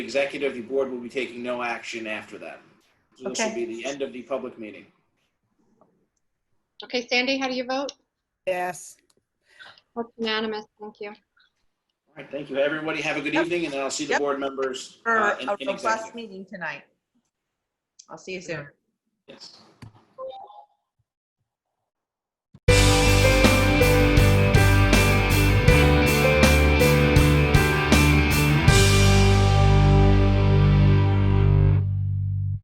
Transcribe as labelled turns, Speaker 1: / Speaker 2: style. Speaker 1: executive, the board will be taking no action after that. So this will
Speaker 2: Okay.
Speaker 1: be the end of the public meeting.
Speaker 3: Okay, Sandy, how do you vote?
Speaker 4: Yes.
Speaker 3: That's unanimous, thank you.
Speaker 1: All right, thank you, everybody. Have a good
Speaker 4: Yep.
Speaker 1: evening, and then I'll see the
Speaker 4: Yep.
Speaker 1: board members.
Speaker 4: For
Speaker 1: uh, in-
Speaker 4: a
Speaker 1: in
Speaker 4: robust
Speaker 1: executive.
Speaker 4: meeting tonight. I'll see you soon.
Speaker 1: Yes.